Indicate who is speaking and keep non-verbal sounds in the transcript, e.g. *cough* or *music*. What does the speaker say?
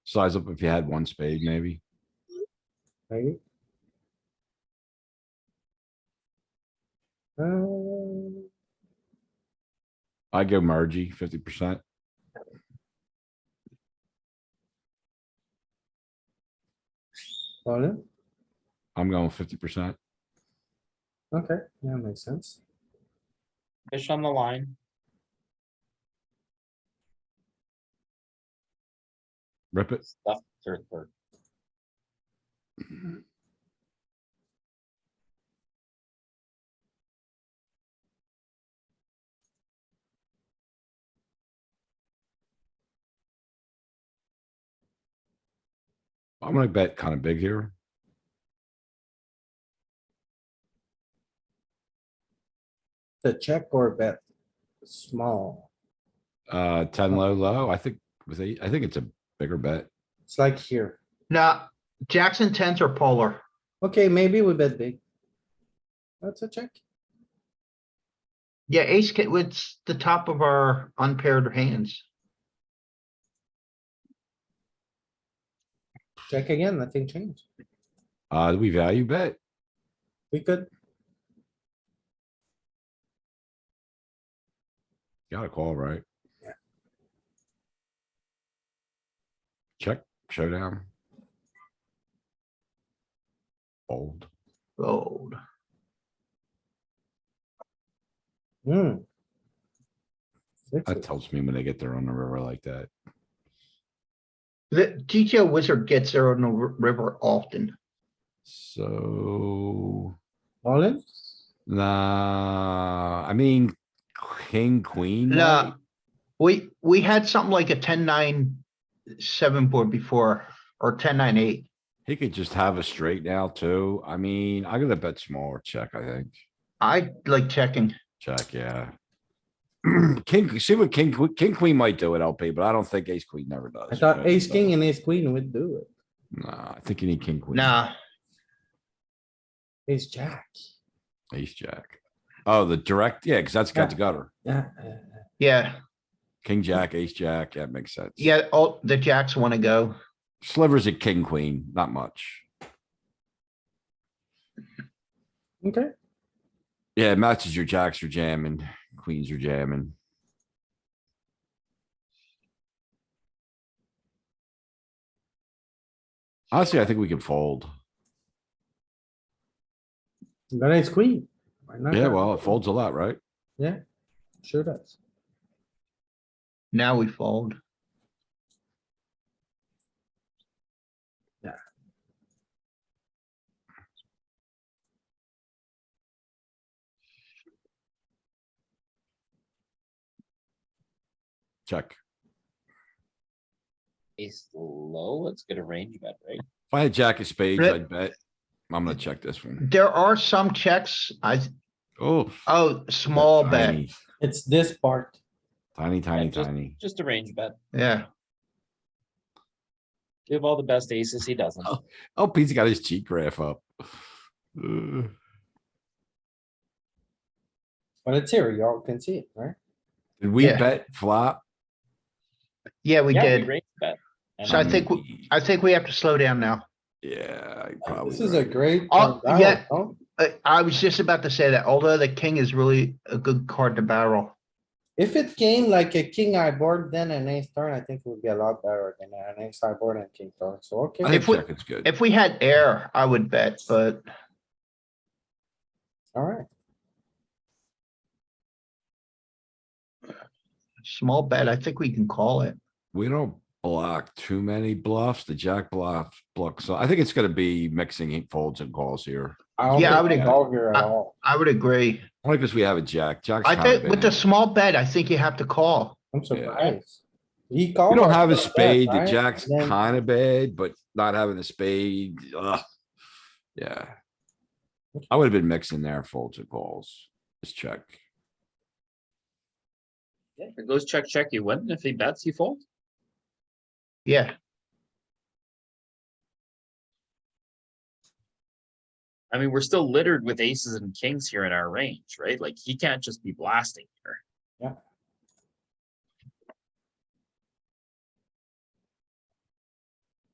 Speaker 1: Size up if you had one spade, maybe.
Speaker 2: right? Uh,
Speaker 1: I go mergey fifty percent.
Speaker 2: call it,
Speaker 1: I'm going fifty percent.
Speaker 2: okay, yeah, makes sense.
Speaker 3: Fish on the line.
Speaker 1: Rip it.
Speaker 3: Stuff third, third.
Speaker 1: I'm gonna bet kind of big here.
Speaker 2: The check or bet, small,
Speaker 1: Uh, ten low, low. I think with eight, I think it's a bigger bet.
Speaker 2: it's like here,
Speaker 4: No, Jackson tens are polar.
Speaker 2: okay, maybe we bet big. That's a check,
Speaker 4: Yeah, ace, ca- it's the top of our unpaired hands.
Speaker 2: check again, nothing changed,
Speaker 1: Uh, we value bet.
Speaker 2: we could,
Speaker 1: Gotta call, right?
Speaker 2: Yeah.
Speaker 1: Check, showdown. Fold.
Speaker 4: Fold.
Speaker 2: hmm.
Speaker 1: That
Speaker 2: Sixes.
Speaker 1: tells me when they get there on the river like that.
Speaker 4: The GTO wizard gets there on the r- river often.
Speaker 1: So,
Speaker 2: All in,
Speaker 1: nah, I mean, king, queen.
Speaker 4: No,
Speaker 1: might.
Speaker 4: we, we had something like a ten, nine, seven board before, or ten, nine, eight.
Speaker 1: He could just have a straight now too. I mean, I gotta bet smaller check, I think.
Speaker 4: I like checking.
Speaker 1: Check, yeah. *clears throat* King, see what king, que- king, queen might do at LP, but I don't think ace, queen never does.
Speaker 2: I thought
Speaker 1: but-
Speaker 2: ace, king and ace queen would do it,
Speaker 1: Nah, I think you need king, queen.
Speaker 4: Nah,
Speaker 2: ace jack,
Speaker 1: Ace jack. Oh, the direct, yeah, cuz that's got the
Speaker 2: Yeah.
Speaker 1: gutter.
Speaker 2: yeah, uh,
Speaker 4: yeah,
Speaker 1: King, jack, ace, jack, that makes sense.
Speaker 4: yeah, all the jacks wanna go.
Speaker 1: Slivers at king, queen, not much.
Speaker 2: okay,
Speaker 1: Yeah, it matches your jacks are jamming, queens are jamming. Honestly, I think we can fold.
Speaker 2: but ace queen. why not?
Speaker 1: Yeah, well, it folds a lot, right?
Speaker 2: Sure does,
Speaker 4: Now we fold.
Speaker 1: Check.
Speaker 3: Ace low, it's gonna range bet, right?
Speaker 1: If I had jack of spades,
Speaker 4: Rip.
Speaker 1: I'd bet. I'm gonna check this one.
Speaker 4: There are some checks, I,
Speaker 1: Oh.
Speaker 4: oh, small bet,
Speaker 1: tiny,
Speaker 2: it's this part,
Speaker 1: Tiny, tiny,
Speaker 3: just-
Speaker 1: tiny.
Speaker 3: Just a range bet.
Speaker 4: yeah.
Speaker 3: Give all the best aces he doesn't.
Speaker 1: Oh. Oh, Pete's got his cheat graph up. Uh,
Speaker 2: but it's here, y'all can see it, right?
Speaker 1: Did we
Speaker 4: Yeah.
Speaker 1: bet flop?
Speaker 4: Yeah, we
Speaker 3: Yeah,
Speaker 4: did.
Speaker 3: range bet. And
Speaker 4: So I
Speaker 3: I'm-
Speaker 4: think w-
Speaker 1: mean,
Speaker 4: I think we have to slow down now.
Speaker 1: Yeah, I probably.
Speaker 2: Uh, This is a
Speaker 1: right.
Speaker 2: great.
Speaker 4: Oh,
Speaker 2: turn
Speaker 4: yeah.
Speaker 2: down, no?
Speaker 4: I, Uh, I was just about to say that although the king is really a good card to barrel.
Speaker 2: If it came like a king high board, then an ace turn, I think would be a lot better than an ace high board and king turn, so
Speaker 1: I
Speaker 2: okay,
Speaker 1: think
Speaker 4: if we-
Speaker 1: check is good.
Speaker 4: If we had air, I would bet, but
Speaker 2: alright.
Speaker 4: small bet, I think we can call it.
Speaker 1: We don't block too many bluffs. The jack bluff blocks. So I think it's gonna be mixing eight folds and calls here.
Speaker 4: Yeah, I would
Speaker 1: agree.
Speaker 2: All here at
Speaker 4: I-
Speaker 2: all,
Speaker 4: I would agree.
Speaker 1: Only because we have a jack. Jack's
Speaker 4: I
Speaker 1: kind of
Speaker 4: think with the
Speaker 1: bad.
Speaker 4: small bet, I think you have to call.
Speaker 2: I'm surprised. He called.
Speaker 1: We don't
Speaker 2: us
Speaker 1: have a
Speaker 2: like that,
Speaker 1: spade. The
Speaker 2: right?
Speaker 1: jack's
Speaker 2: And then-
Speaker 1: kind of bad, but not having a spade, ugh. Yeah. I would have been mixing there folds and calls. Just check.
Speaker 3: Yeah, if it goes check, check, you win. If he bets, you fold.
Speaker 4: Yeah,
Speaker 3: I mean, we're still littered with aces and kings here in our range, right? Like, he can't just be blasting here.